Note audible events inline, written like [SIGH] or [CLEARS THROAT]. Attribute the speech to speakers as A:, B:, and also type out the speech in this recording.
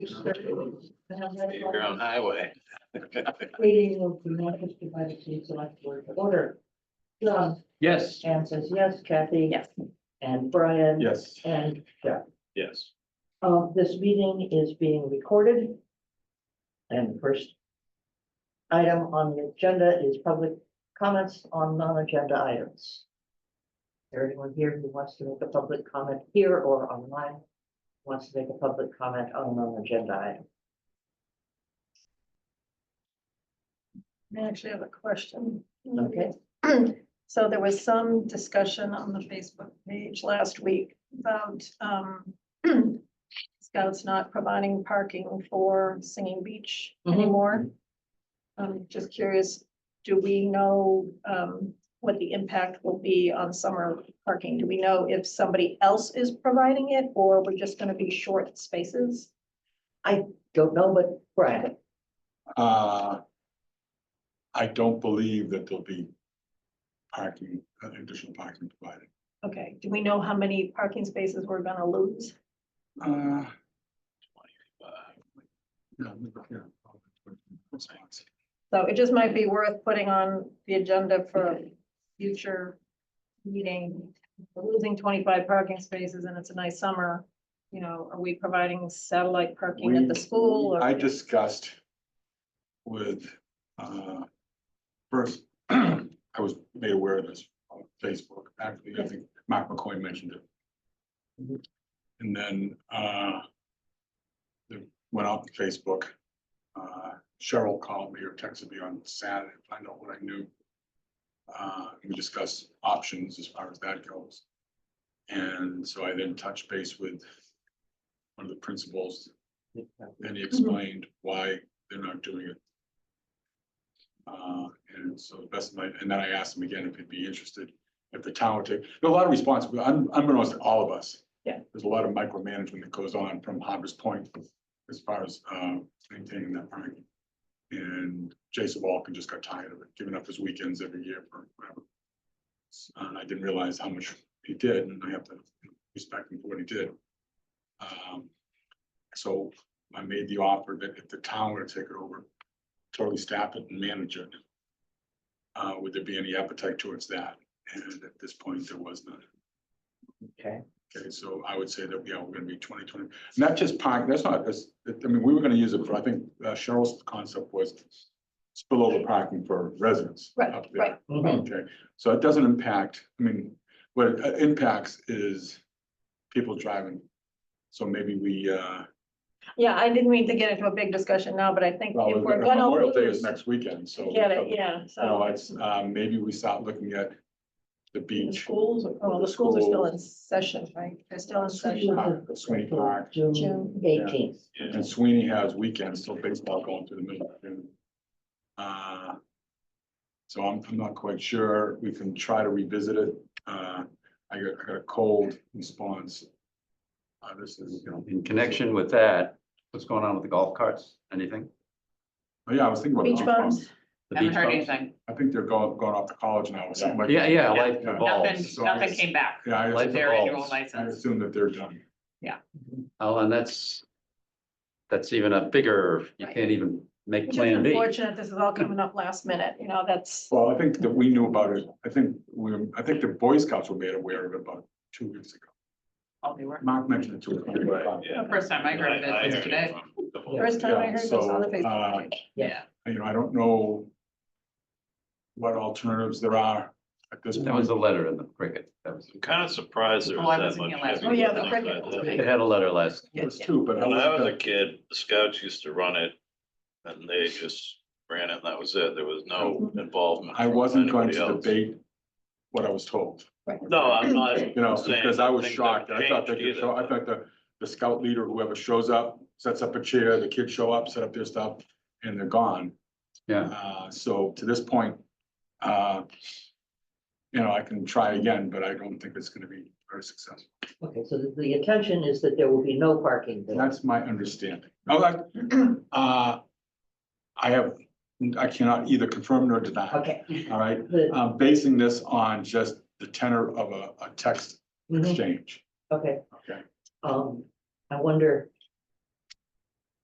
A: Your own highway.
B: Reading of the Manchester by the Chief Select Board of Order. John,
A: Yes.
B: Anne says yes, Kathy.
C: Yes.
B: And Brian.
D: Yes.
B: And Jeff.
A: Yes.
B: Uh, this meeting is being recorded. And the first item on the agenda is public comments on non-agenda items. Is there anyone here who wants to make a public comment here or online? Wants to make a public comment on a non-agenda item?
E: I actually have a question.
B: Okay.
E: [CLEARS THROAT] So there was some discussion on the Facebook page last week about um. [CLEARS THROAT] Scouts not providing parking for Singing Beach
B: Mhm.
E: anymore. I'm just curious, do we know um what the impact will be on summer parking? Do we know if somebody else is providing it or we're just gonna be short spaces?
B: Don't know, but Brian,
D: Uh, I don't believe that there'll be parking, uh, additional parking provided.
E: Okay, do we know how many parking spaces we're gonna lose?
D: Uh,
A: Uh,
D: yeah, yeah. Response.
E: So it just might be worth putting on the agenda for future meeting. We're Losing twenty-five parking spaces and it's a nice summer, you know, are we providing satellite parking at the
D: We-
E: school? or-
D: I discussed with, uh, first, [CLEARS THROAT] I was made aware of this on Facebook, actually, I think Mark McCoy mentioned
E: Mm-hmm.
D: it. And then, uh, it went out to Facebook. Uh, Cheryl called me or texted me on Saturday, to find out what I knew. Uh, we discussed options as far as that goes. And so I then touched base with one of the principals and he explained why they're not doing it. Uh, and so the best of my, and then I asked him again if he'd be interested, if the town would take, there are a lot of responsibility, I'm, I'm gonna ask all of us.
E: Yeah.
D: There's a lot of micromanagement that goes on from Harbor's Point as far as, uh, maintaining that parking. And Jason Walken just got tired of it, giving up his weekends every year for whatever. And I didn't realize how much he did, and I have to respect him for what he did. Um, so I made the offer that if the town were to take it over, totally staff it and manage it. Uh, would there be any appetite towards that? And at this point, there was none.
B: okay.
D: Okay, so I would say that, yeah, we're gonna be twenty twenty, not just park, that's not, that's, I mean, we were gonna use it for, I think uh, Cheryl's concept was spillover parking for residents.
E: Right,
D: up there.
E: right,
D: Okay, so it doesn't impact, I mean, what it uh, impacts is people driving. So maybe we, uh,
E: yeah, I didn't mean to get into a big discussion now, but I think
D: Well,
E: if
D: we've got-
E: we're gonna
D: Memorial Day is
E: lose.
D: next weekend, so.
E: Get it, yeah,
D: You know,
E: so.
D: it's, um, maybe we start looking at the
E: The
D: beach.
E: schools, oh, the schools are still in session, right? They're still in session.
D: park, Sweeney uh, Park,
B: June
E: June.
B: eighteenth.
D: and Sweeney has weekends, still baseball going through the middle of June. Uh, So I'm, I'm not quite sure, we can try to revisit it, uh, I got, I got a cold response. Uh, this is, you know,
F: In connection with that, what's going on with the golf carts? Anything?
D: oh, yeah, I was thinking about.
E: Beach
D: golf clubs.
E: bums,
F: The
C: Haven't
F: beach
C: heard
F: clubs?
C: anything.
D: I think they're going, going off to college now or something like.
F: Yeah, yeah, life
D: Yeah.
C: Nothing,
F: evolves.
D: so
C: nothing
D: it's-
C: came back.
D: Yeah, I,
F: Life
D: assume-
C: Their annual
F: evolves.
D: I
C: license.
D: assume that they're done.
F: Oh, and that's, that's even a bigger, you
E: Right.
F: can't even make
E: which is
F: plan B.
E: unfortunate, this is all coming up last minute, you know, that's.
D: Well, I think that we knew about it. I think we, I think the Boy Scouts were made aware of it about two weeks ago.
C: Oh, they were.
D: Mark mentioned it to us.
A: Right, yeah.
C: First time I heard of
A: I- I
C: it was
A: heard
C: today.
A: from the whole-
E: First time I
D: Yeah,
E: heard this
D: so,
E: on the
D: uh,
E: Facebook page.
C: Yeah.
D: You know, I don't know what alternatives there are at this
F: That was
D: point.
F: a letter in the cricket. That was,
A: I'm kind of surprised there
C: Oh,
A: was
C: I
A: that
C: wasn't
A: much.
C: here last
A: heavy
E: week. Oh, yeah, the
A: equipment
E: cricket was
A: like that.
F: it had a letter last,
D: It was two, but.
A: When I was a kid, the scouts used to run it and they just ran it and that was it. There was no involvement.
D: Mm-hmm. I
A: from
D: wasn't going to
A: anybody else.
D: debate what I was told.
E: Right.
A: No, I'm not.
D: [LAUGHS] You know,
A: saying
D: because I was
A: things
D: shocked.
A: haven't
D: I thought they
A: changed
D: could show,
A: either,
D: I thought the, the scout leader, whoever shows up, sets up a chair, the kids show up, set up their stuff, and they're gone.
F: yeah.
D: Uh, so to this point, uh, you know, I can try again, but I don't think it's gonna be very successful.
B: Okay, so the- the intention is that there will be no parking there.
D: That's my understanding. I [CLEARS THROAT] uh, I have, I cannot either confirm nor deny,
B: Okay.
D: all right?
B: the-
D: I'm basing this on just the tenor of a, a text
B: mhm,
D: exchange,
B: Okay,
D: okay?
B: um, I wonder